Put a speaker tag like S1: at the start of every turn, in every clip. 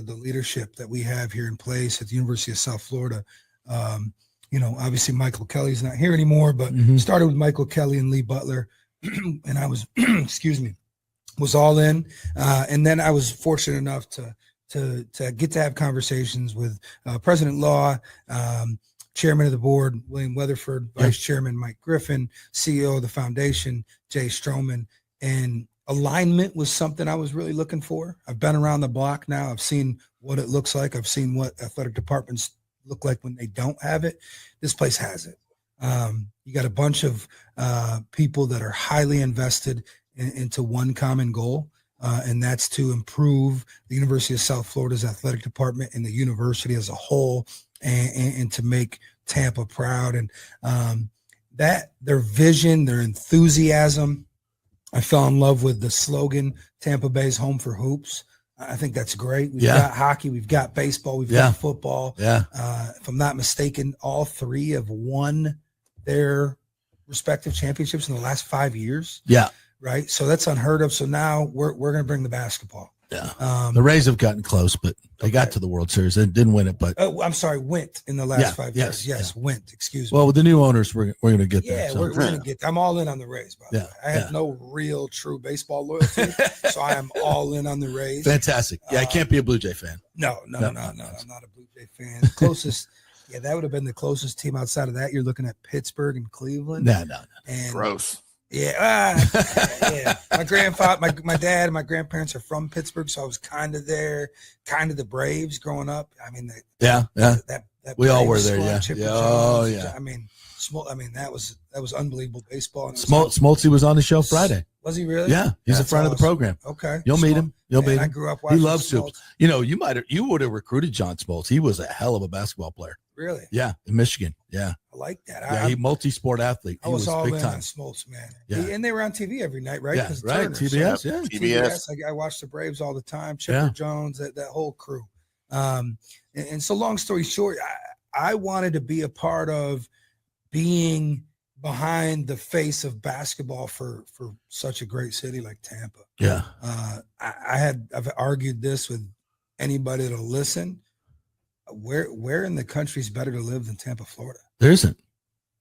S1: the leadership that we have here in place at the University of South Florida. Um, you know, obviously Michael Kelly's not here anymore, but
S2: Mhm.
S1: started with Michael Kelly and Lee Butler, and I was, excuse me, was all in. Uh, and then I was fortunate enough to to to get to have conversations with uh, President Law, um, Chairman of the Board William Weatherford,
S2: Yeah.
S1: Vice Chairman Mike Griffin, CEO of the Foundation Jay Stroman, and alignment was something I was really looking for. I've been around the block now. I've seen what it looks like. I've seen what athletic departments look like when they don't have it. This place has it. Um, you got a bunch of uh, people that are highly invested in, into one common goal, uh, and that's to improve the University of South Florida's athletic department and the university as a whole, and, and, and to make Tampa proud. And um, that their vision, their enthusiasm. I fell in love with the slogan "Tampa Bay's home for hoops." I I think that's great. We've
S2: Yeah.
S1: got hockey, we've got baseball, we've
S2: Yeah.
S1: got football
S2: Yeah.
S1: uh, if I'm not mistaken, all three have won their respective championships in the last five years,
S2: Yeah.
S1: right? So that's unheard of. So now we're, we're going to bring the basketball.
S2: Yeah. The
S1: Um,
S2: Rays have gotten close, but they got
S1: Okay.
S2: to the World Series. They didn't win it, but
S1: oh, I'm sorry, went in the last
S2: Yeah,
S1: five
S2: yes,
S1: years. Yes, went. Excuse me.
S2: well, with the new owners, we're, we're going to get
S1: yeah,
S2: there. so.
S1: we're, we're going to get. I'm all in on the Rays. By the
S2: Yeah,
S1: way. I have
S2: yeah.
S1: no real true baseball loyalty, so I am all in on the Rays.
S2: Fantastic. Yeah, I
S1: Uh,
S2: can't be a Blue Jay fan.
S1: No, no,
S2: No,
S1: no, no.
S2: no, no.
S1: I'm not a Blue Jay fan. Closest, yeah, that would have been the closest team outside of that. You're looking at Pittsburgh and Cleveland.
S2: No, no,
S1: and
S3: Gross.
S1: Yeah, ah, yeah. My grandfather, my my dad, and my grandparents are from Pittsburgh, so I was kind of there, kind of the Braves growing up. I mean, that
S2: Yeah, yeah.
S1: that, that
S2: We all were
S1: Braves
S2: there,
S1: squad,
S2: yeah.
S1: Chipper
S2: Yeah, oh,
S1: Jones,
S2: yeah.
S1: I mean, small. I mean, that was that was unbelievable baseball. and it was-
S2: Smol- Smoltz was on the show Friday.
S1: Was he really?
S2: Yeah, he's a
S1: That's
S2: friend of the
S1: awesome.
S2: program.
S1: Okay.
S2: You'll meet
S1: Smol-
S2: him. You'll
S1: Man,
S2: meet
S1: I
S2: him.
S1: grew up watching.
S2: loves
S1: Smoltz.
S2: You know, you might have, you would have recruited John Smoltz. He was a hell of a basketball player.
S1: Really,
S2: Yeah, in Michigan. Yeah,
S1: I like that. I,
S2: yeah. He multi-sport athlete.
S1: I
S2: He was
S1: was, all
S2: big
S1: in
S2: time.
S1: on Smoltz, man.
S2: Yeah.
S1: and they were on TV every night, right?
S2: Yeah,
S1: 'Cause of
S2: right.
S1: Turner, so-
S2: TBS. Yeah,
S3: TBS.
S1: I, I watched the Braves all the time. Chipper
S2: Yeah.
S1: Jones, that, that whole crew. Um, and, and so, long story short, I, I wanted to be a part of being behind the face of basketball for for such a great city like Tampa.
S2: yeah.
S1: Uh, I, I had I've argued this with anybody that'll listen. Where where in the country is better to live than Tampa, Florida?
S2: There isn't.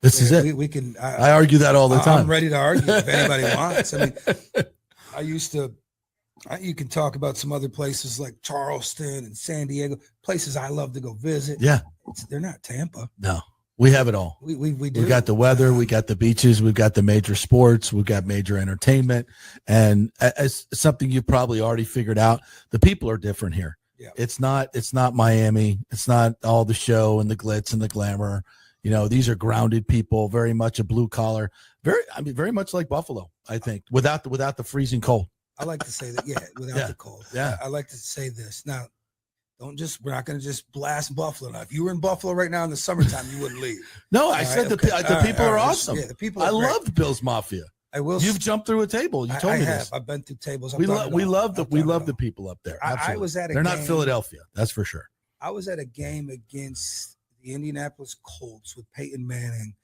S2: This is
S1: We,
S2: it.
S1: we can. I,
S2: I argue that all the
S1: I'm
S2: time.
S1: ready to argue if anybody wants. I mean, I used to. I, you can talk about some other places like Charleston and San Diego, places I love to go visit.
S2: Yeah.
S1: It's- they're not Tampa.
S2: No, we have it all.
S1: We we we do.
S2: We got the weather, we got the beaches, we've got the major sports, we've got major entertainment, and a- as something you've probably already figured out, the people are different here.
S1: Yeah.
S2: It's not it's not Miami, it's not all the show and the glitz and the glamour. You know, these are grounded people, very much a blue collar, very I mean very much like Buffalo, I think, without the without the freezing cold.
S1: I like to say that. Yeah, without
S2: Yeah.
S1: the cold.
S2: Yeah.
S1: I like to say this now. Don't just. We're not going to just blast Buffalo. Now, if you were in Buffalo right now in the summertime, you wouldn't leave.
S2: No, I
S1: All
S2: said
S1: right,
S2: the,
S1: okay.
S2: pe-
S1: All
S2: the
S1: right,
S2: people
S1: all
S2: are
S1: right.
S2: awesome.
S1: Yeah, the people. Are
S2: I
S1: great.
S2: loved Bill's Mafia.
S1: I will.
S2: You've jumped through a table. You
S1: I-
S2: told
S1: I
S2: me
S1: have.
S2: this.
S1: I've been through tables. I've
S2: We
S1: done
S2: love
S1: it
S2: we
S1: all.
S2: love the
S1: I've
S2: we
S1: done it
S2: love the
S1: all.
S2: people up there.
S1: I, I
S2: Absolutely.
S1: was at a.
S2: They're not
S1: game-
S2: Philadelphia, that's for sure.
S1: I was at a game against the Indianapolis Colts with Peyton Manning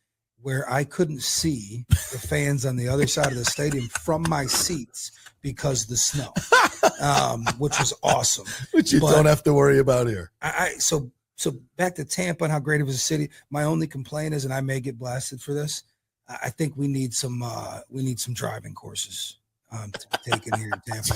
S1: where I couldn't see the fans on the other side of the stadium from my seats because the snow, um, which was awesome.
S2: Which you
S1: But-
S2: don't have to worry about here.
S1: I, I so so back to Tampa and how great it was a city. My only complaint is, and I may get blasted for this, I I think we need some uh, we need some driving courses um, to be taken here in Tampa.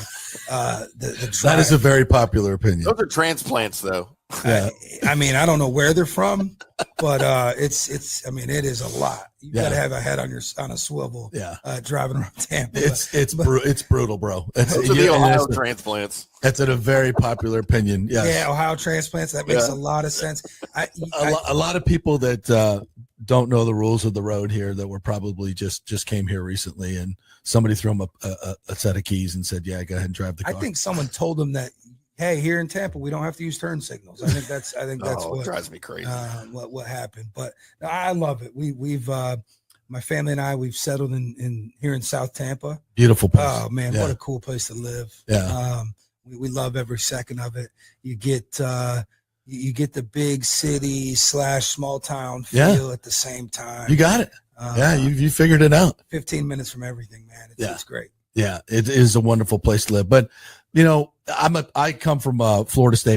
S1: Uh, the, the
S2: That is
S1: drive-
S2: a very popular opinion.
S3: Those are transplants, though.
S2: Yeah.
S1: I, I mean, I don't know where they're from, but uh, it's it's. I mean, it is a lot. You got to
S2: Yeah.
S1: have a head on your on a swivel
S2: Yeah.
S1: uh, driving around Tampa.
S2: It's it's
S1: but-
S2: bru- it's brutal, bro. It's,
S3: Those are
S2: you-
S3: the Ohio
S2: it is-
S3: transplants.
S2: that's a very popular opinion. Yes.
S1: Yeah, Ohio transplants. That makes
S3: Yeah.
S1: a lot of sense. I,
S2: A,
S1: I-
S2: lo- a lot of people that uh, don't know the rules of the road here that were probably just just came here recently and somebody threw them a, a, a- a set of keys and said, "Yeah, go ahead and drive the
S1: I
S2: car."
S1: think someone told them that. Hey, here in Tampa, we don't have to use turn signals. I think that's I think that's
S3: oh, it
S1: what
S3: drives me crazy.
S1: uh, what what happened. But no, I love it. We we've uh, my family and I we've settled in in here in South Tampa.
S2: Beautiful place.
S1: Oh man,
S2: Yeah.
S1: what a cool place to live.
S2: yeah.
S1: Um, we, we love every second of it. You get uh, you you get the big city slash small town
S2: Yeah.
S1: feel at the same time.
S2: you got it.
S1: Uh,
S2: Yeah, you you figured it out.
S1: 15 minutes from everything, man. It's,
S2: Yeah.
S1: it's great.
S2: Yeah, it is a wonderful place to live. But you know, I'm a I come from uh, Florida State.